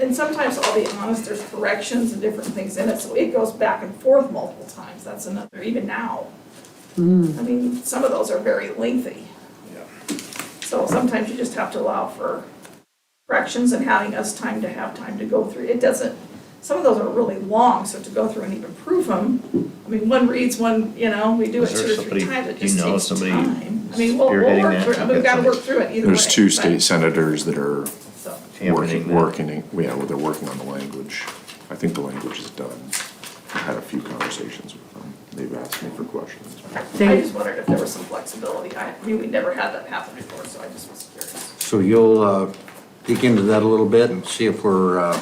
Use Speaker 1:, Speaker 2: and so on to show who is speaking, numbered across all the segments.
Speaker 1: and sometimes, I'll be honest, there's corrections and different things in it, so it goes back and forth multiple times, that's another, even now. I mean, some of those are very lengthy. So sometimes you just have to allow for corrections and having us time to have time to go through. It doesn't, some of those are really long, so to go through and even prove them, I mean, one reads one, you know, we do it
Speaker 2: Is there
Speaker 1: two or three
Speaker 2: somebody-
Speaker 1: times, it
Speaker 2: do you
Speaker 1: just
Speaker 2: know
Speaker 1: takes
Speaker 2: somebody
Speaker 1: time. I mean, we'll, we'll
Speaker 2: spearheading
Speaker 1: work
Speaker 2: that?
Speaker 1: through, it. we've got to work through it either way.
Speaker 3: There's two
Speaker 1: but-
Speaker 3: state senators that are
Speaker 1: so.
Speaker 2: Championing
Speaker 3: working,
Speaker 2: that.
Speaker 3: working, yeah, well, they're working on the language. I think the language is done. I had a few conversations with them. They've asked me for questions.
Speaker 1: I
Speaker 4: They,
Speaker 1: just wondered if there was some flexibility. I I mean, we never had that happen before, so I just was curious.
Speaker 5: So you'll uh, dig into that a little bit and see if we're, uh,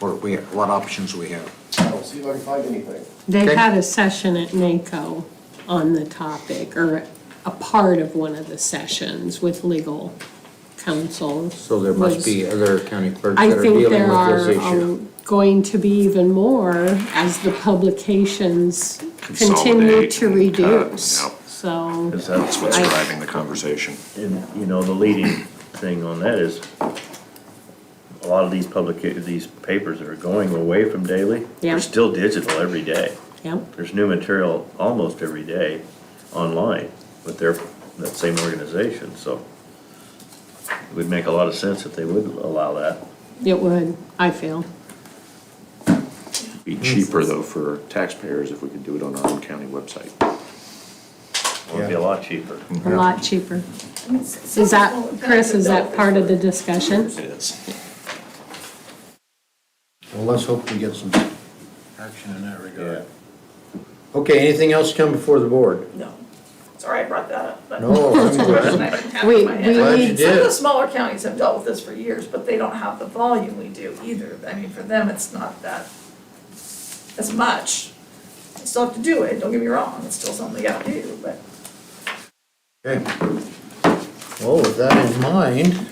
Speaker 5: or we, what options we have.
Speaker 6: I'll see if I can find anything.
Speaker 4: they
Speaker 5: Okay.
Speaker 4: had a session at NACO on the topic, or a part of one of the sessions with legal counsel.
Speaker 5: So there must
Speaker 4: was-
Speaker 5: be other county clerks
Speaker 4: I
Speaker 5: that are
Speaker 4: think
Speaker 5: dealing
Speaker 4: there
Speaker 5: with
Speaker 4: are
Speaker 5: this issue.
Speaker 4: um, going to be even more as the publications continue
Speaker 3: Consolidate
Speaker 4: to
Speaker 3: and cut,
Speaker 4: reduce.
Speaker 3: yep.
Speaker 4: So.
Speaker 2: Is that-
Speaker 3: That's what's
Speaker 4: I-
Speaker 3: driving the conversation.
Speaker 2: And, you know, the leading thing on that is a lot of these public, these papers are going away from daily.
Speaker 4: Yeah.
Speaker 2: They're still digital every day.
Speaker 4: Yep.
Speaker 2: There's new material almost every day online with their, that same organization, so it would make a lot of sense if they would allow that.
Speaker 4: It would, I feel.
Speaker 3: It'd Be cheaper though for taxpayers if we could do it on our own county website.
Speaker 2: It would be a lot cheaper.
Speaker 4: A lot cheaper.
Speaker 1: I mean, s-
Speaker 4: Is that,
Speaker 1: some people-
Speaker 4: Chris, is that part of the discussion?
Speaker 3: It is.
Speaker 5: Well, let's hope we get some action in that
Speaker 2: Yeah.
Speaker 5: regard. Okay, anything else come before the board?
Speaker 1: No. Sorry I brought that up, but.
Speaker 5: No, I'm
Speaker 1: And I
Speaker 5: glad.
Speaker 1: didn't have it
Speaker 4: We-
Speaker 1: in my head.
Speaker 4: we Glad
Speaker 5: you need-
Speaker 1: Some of the
Speaker 5: did.
Speaker 1: smaller counties have dealt with this for years, but they don't have the volume we do either. I mean, for them, it's not that, as much. They Still have to do it, don't get me wrong, it's still something they gotta do, but.
Speaker 5: Okay. Well, with that in mind,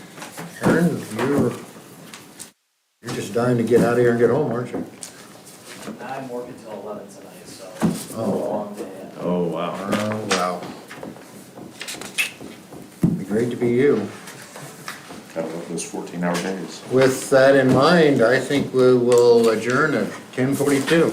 Speaker 5: Aaron, you're, you're just dying to get out of here and get home, aren't you?
Speaker 7: I'm working till eleven tonight, so it's a
Speaker 5: Oh.
Speaker 7: long day.
Speaker 2: Oh, wow.
Speaker 5: Oh, wow. Be great to be you.
Speaker 3: Kind of love those fourteen hour days.
Speaker 5: With that in mind, I think we will adjourn at ten forty-two.